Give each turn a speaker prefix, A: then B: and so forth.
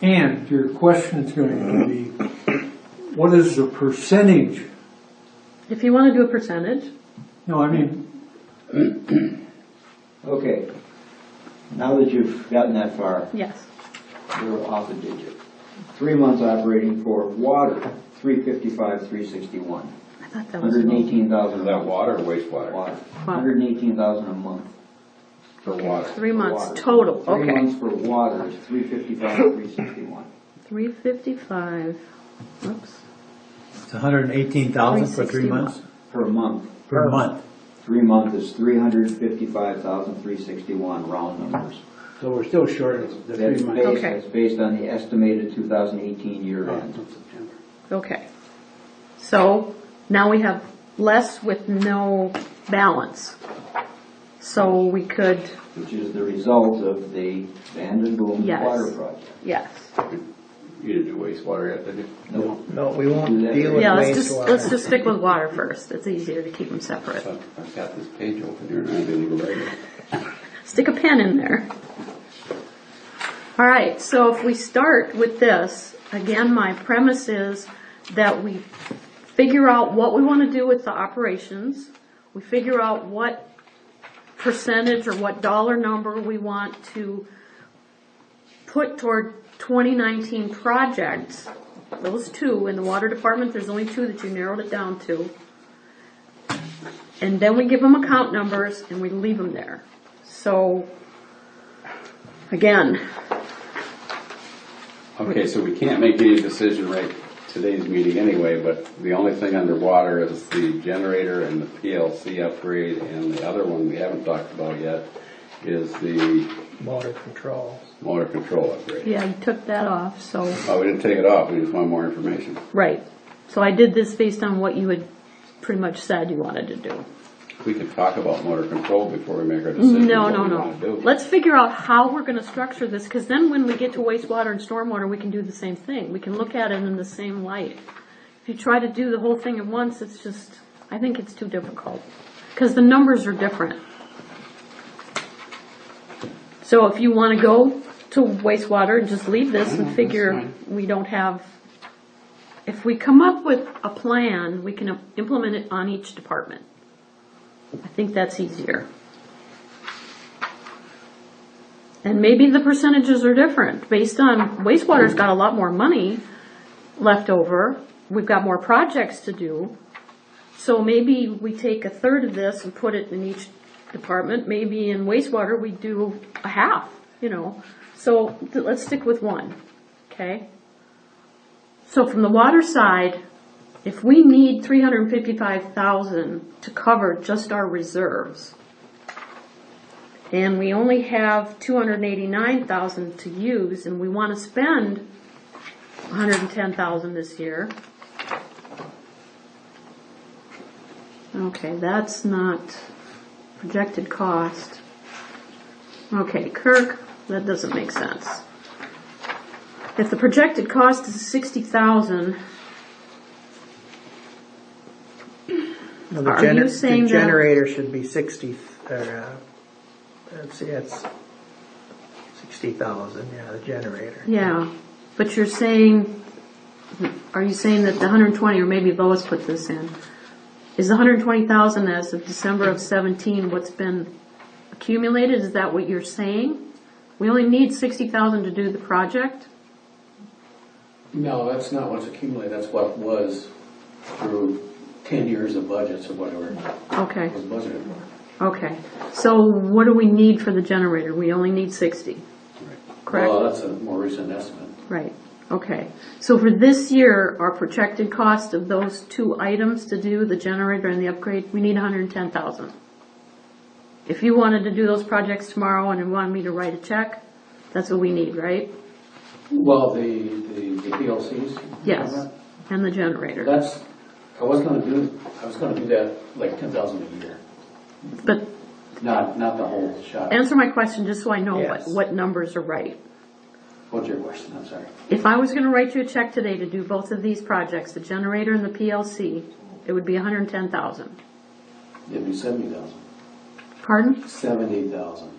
A: And your question's going to be, what is the percentage?
B: If you want to do a percentage,
A: No, I mean,
C: Okay. Now that you've gotten that far,
B: yes.
C: we're off a digit. Three months operating for water, three fifty-five, three sixty-one.
B: I thought that was.
C: Hundred and eighteen thousand a
D: Is that
C: month.
D: water or wastewater?
C: Water. Hundred and eighteen thousand a month.
D: For water.
B: Three
C: for
B: months
C: water.
B: total,
C: Three
B: okay.
C: months for water is three fifty-five, three sixty-one.
B: Three fifty-five, oops,
E: It's hundred and eighteen thousand for three months,
C: Per month.
E: per month.
C: Three month is three hundred fifty-five thousand, three sixty-one, round numbers.
F: So we're still short of the
C: That's
F: three months.
C: based,
B: Okay.
C: that's based on the estimated two thousand eighteen year end.
F: September.
B: okay. So now we have less with no balance. So we could,
C: which is the result of the Van Boom
B: Yes.
C: water project.
B: yes.
D: You didn't do wastewater yet, did you?
C: No,
G: No, we won't deal with
B: Yeah, let's just, let's
G: wastewater.
B: just stick with water first. It's easier to keep them separate.
D: I've I've got this page open here and I didn't even write it.
B: Stick a pen in there. All right, so if we start with this, again, my premise is that we figure out what we want to do with the operations. We figure out what percentage or what dollar number we want to put toward 2019 projects. Those two, in the water department, there's only two that you narrowed it down to. And then we give them account numbers and we leave them there. So, again,
D: Okay, so we can't make any decision right today's meeting anyway, but the only thing underwater is the generator and the PLC upgrade, and the other one we haven't talked about yet is the
G: Motor control.
D: motor control upgrade.
B: yeah, you took that off, so,
D: Oh, we didn't take it off, we just want more information.
B: right. So I did this based on what you had pretty much said you wanted to do.
D: We could talk about motor control before we make our decision.
B: No,
D: what
B: no,
D: we wanna
B: no.
D: do.
B: Let's figure out how we're gonna structure this, because then when we get to wastewater and stormwater, we can do the same thing. We can look at it in the same light. If you try to do the whole thing at once, it's just, I think it's too difficult, because the numbers are different. So if you wanna go to wastewater and just leave
D: Mm-hmm,
B: this and figure we don't have, if we come up with a plan, we can implement it on each department. I think that's easier. And maybe the percentages are different, based on wastewater's got a lot more money left over, we've got more projects to do. So maybe we take a third of this and put it in each department, maybe in wastewater we do a half, you know? So th- let's stick with one, okay? So from the water side, if we need three hundred and fifty-five thousand to cover just our reserves, and we only have two hundred and eighty-nine thousand to use, and we wanna spend hundred and ten thousand this year. Okay, that's not projected cost. Okay, Kirk, that doesn't make sense. If the projected cost is sixty thousand,
G: Now, the
B: Are
G: gener-
B: you saying
G: The
B: that-
G: generator should be sixty, or, uh, let's see, it's sixty thousand, yeah, the generator.
B: yeah, but you're saying, are you saying that the hundred and twenty, or maybe Lois put this in, is the hundred and twenty thousand as of December of seventeen what's been accumulated, is that what you're saying? We only need sixty thousand to do the project?
F: No, that's not what's accumulated, that's what was through ten years of budgets or whatever
B: Okay,
F: was budgeted for.
B: okay, so what do we need for the generator? We only need sixty, correct?
F: Well, that's a more recent estimate.
B: Right, okay. So for this year, our projected cost of those two items to do, the generator and the upgrade, we need hundred and ten thousand. If you wanted to do those projects tomorrow and you wanted me to write a check, that's what we need, right?
F: Well, the, the the PLCs?
B: Yes, and the generator.
F: That's, I was gonna do, I was gonna do that like ten thousand a year,
B: But
F: not, not the whole shot.
B: answer my question just so I know what,
G: Yes.
B: what numbers are right.
F: What's your question, I'm sorry?
B: If I was gonna write you a check today to do both of these projects, the generator and the PLC, it would be hundred and ten thousand.
F: It'd be seventy thousand.
B: Pardon?
F: Seventy thousand.